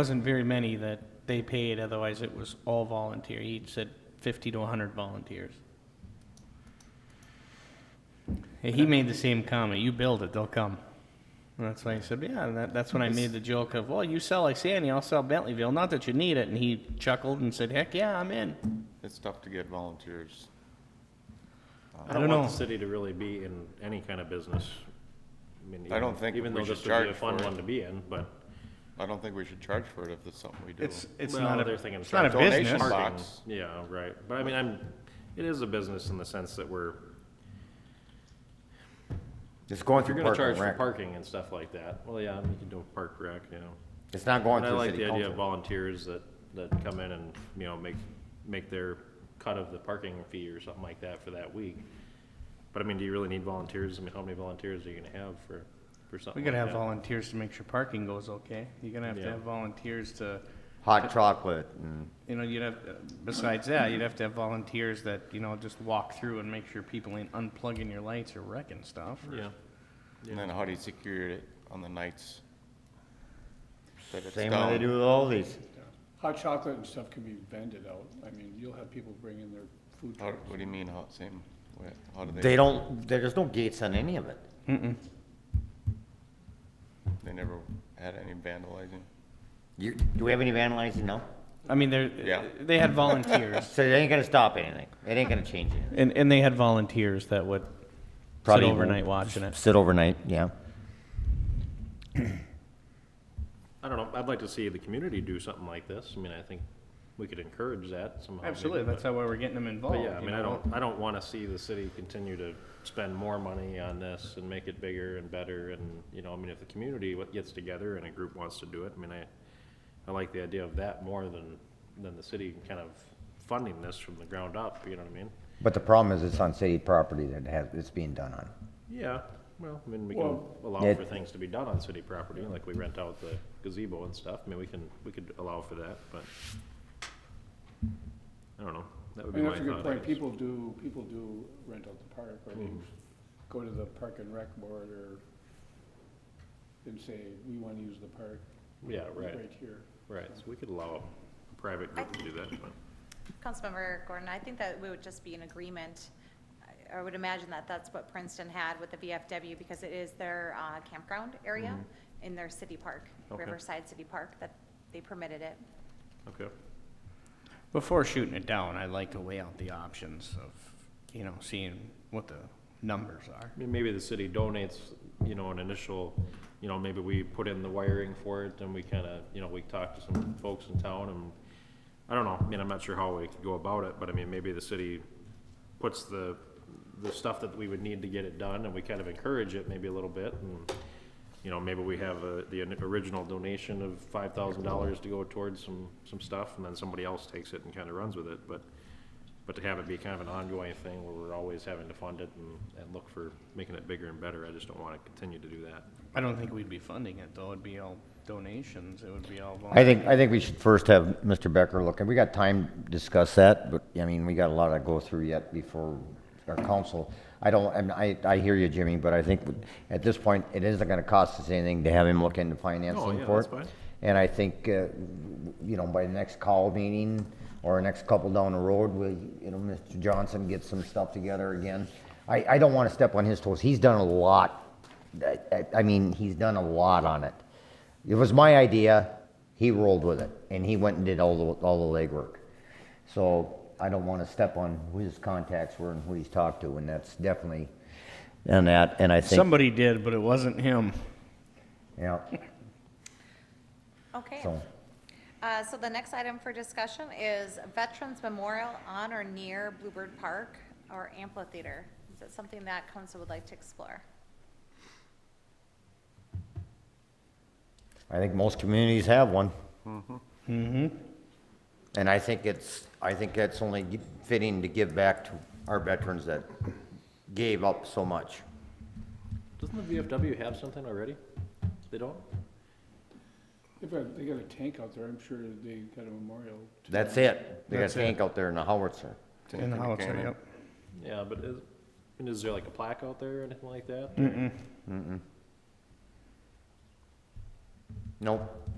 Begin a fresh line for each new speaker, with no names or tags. wasn't very many that they paid, otherwise it was all volunteer. He said 50 to 100 volunteers. And He made the same comment, you build it, they'll come. And that's why he said, yeah, and that, that's when I made the joke of, well, you sell like Sandy, I'll sell Bentleyville, not that you need it, and he chuckled and said, heck, yeah, I'm in.
It's tough to get volunteers.
I
I
don't
don't
know.
want the city to really be in any kind of business. mean,
I don't
even-
think
Even
we
though
should
this would be a
charge
fun
for it.
one to be in, but
I don't think we should charge for it if it's something we do.
It's, it's
Well,
not a,
they're thinking
it's not a
donation
business.
box.
parking, yeah, right. But I mean, I'm, it is a business in the sense that we're,
It's going
if you're
through
gonna
park
charge
and
for
rec.
parking and stuff like that, well, yeah, you can do a park rec, you know.
It's not going
And I
through
like the
city
idea of
council.
volunteers that, that come in and, you know, make, make their cut of the parking fee or something like that for that week. But I mean, do you really need volunteers? I mean, how many volunteers are you gonna have for, for
We
something like
gotta
that?
have volunteers to make sure parking goes okay. You're gonna have to
Yeah.
have volunteers to,
Hot chocolate and
you know, you'd have, besides that, you'd have to have volunteers that, you know, just walk through and make sure people ain't unplugging your lights or wrecking stuff. or-
Yeah.
And then how do you secure it on the nights? that it's
same way they
down?
do with all these.
Hot chocolate and stuff can be vended out. I mean, you'll have people bring in their food
How-
trucks.
What do you mean, how, same, way- how do
They
they,
don't, there's no gates on any of it.
they never had any vandalizing?
You, do we have any vandalizing? No?
I mean, they're,
Yeah.
they had volunteers,
So it ain't gonna stop anything. It ain't gonna change anything.
and, and they had volunteers that would sit
Probably won't
overnight watching it.
Sit overnight, yeah.
I don't know, I'd like to see the community do something like this, I mean, I think we could encourage that somehow. maybe,
Absolutely, that's
but-
how we're getting them involved.
But yeah, I
you
mean, I
know?
don't, I don't wanna see the city continue to spend more money on this and make it bigger and better, and, you know, I mean, if the community what gets together and a group wants to do it, I mean, I, I like the idea of that more than, than the city kind of funding this from the ground up, you know what I mean?
But the problem is it's on city property that has, it's being done on.
Yeah, well, I mean, we can
Well-
allow
Yeah.
for things to be done on city property, like we rent out the gazebo and stuff, I mean, we can, we could allow for that, but I don't know, that would
I
be my
mean, that's a good
thought. I
point.
guess.
People do, people do rent out the park, or
Mm-hmm.
they go to the park and rec board, or, and say, we want to use the park
Yeah, right,
right here.
right, so we could allow a private group to do that, but.
Councilmember Gordon, I think that we would just be in agreement. I- I would imagine that that's what Princeton had with the VFW because it is their uh, campground area in their city park,
Okay.
Riverside City Park, that they permitted it.
Okay.
Before shooting it down, I like to weigh out the options of, you know, seeing what the numbers are.
I mean, maybe the city donates, you know, an initial, you know, maybe we put in the wiring for it, and we kinda, you know, we talk to some folks in town, and I don't know, I mean, I'm not sure how we could go about it, but I mean, maybe the city puts the, the stuff that we would need to get it done, and we kind of encourage it maybe a little bit, and, you know, maybe we have uh the original donation of five thousand dollars to go towards some, some stuff, and then somebody else takes it and kinda runs with it, but but to have it be kind of an ongoing thing where we're always having to fund it and, and look for making it bigger and better, I just don't want to continue to do that.
I don't think we'd be funding it, though. It'd be all donations. It would be all
I
volunteer.
think, I think we should first have Mr. Becker look, and we got time to discuss that, but, I mean, we got a lot to go through yet before our council. I don't, and I, I hear you, Jimmy, but I think at this point, it isn't gonna cost us anything to have him look into financing
Oh, yeah,
for it.
that's fine.
And I think, uh, you know, by the next call meeting, or our next couple down the road, we, you know, Mr. Johnson gets some stuff together again. I, I don't wanna step on his toes, he's done a lot, I, I- I mean, he's done a lot on it. It was my idea, he rolled with it, and he went and did all the, all the legwork. So I don't wanna step on who his contacts were and who he's talked to, and that's definitely, and that, and I think,
Somebody did, but it wasn't him.
yeah,
Okay.
so.
Uh, So the next item for discussion is Veterans Memorial on or near Bluebird Park or amphitheater. Is that something that council would like to explore?
I think most communities have one. Mm-hmm. And I think it's, I think that's only gi- fitting to give back to our veterans that gave up so much.
Doesn't the VFW have something already? They don't?
They've got, they got a tank out there, I'm sure they got a memorial. to-
That's it. They got
That's
a
it.
tank out there in the howitzer.
In the house,
Cannon.
yep.
Yeah, but is, and is there like a plaque out there or anything like that?
Nope,